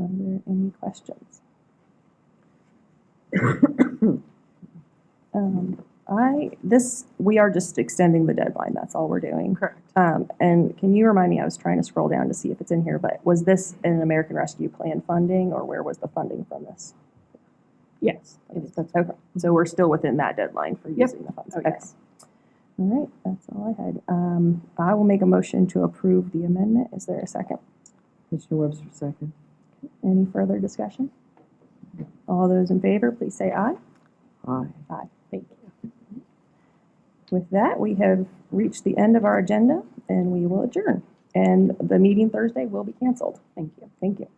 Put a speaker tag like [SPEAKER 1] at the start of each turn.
[SPEAKER 1] Are there any questions? Um, I, this, we are just extending the deadline, that's all we're doing.
[SPEAKER 2] Correct.
[SPEAKER 1] Um, and can you remind me, I was trying to scroll down to see if it's in here, but was this an American Rescue Plan funding, or where was the funding from this?
[SPEAKER 2] Yes.
[SPEAKER 1] Okay, so we're still within that deadline for
[SPEAKER 2] Yep.
[SPEAKER 1] using the funds?
[SPEAKER 2] Oh,
[SPEAKER 1] Okay. All right, that's all I had. Um, I will make a motion to approve the amendment. Is there a second?
[SPEAKER 3] Commissioner Webster, second.
[SPEAKER 1] Any further discussion? All those in favor, please say aye.
[SPEAKER 3] Aye.
[SPEAKER 1] Thank you. With that, we have reached the end of our agenda, and we will adjourn. And the meeting Thursday will be canceled. Thank you. Thank you.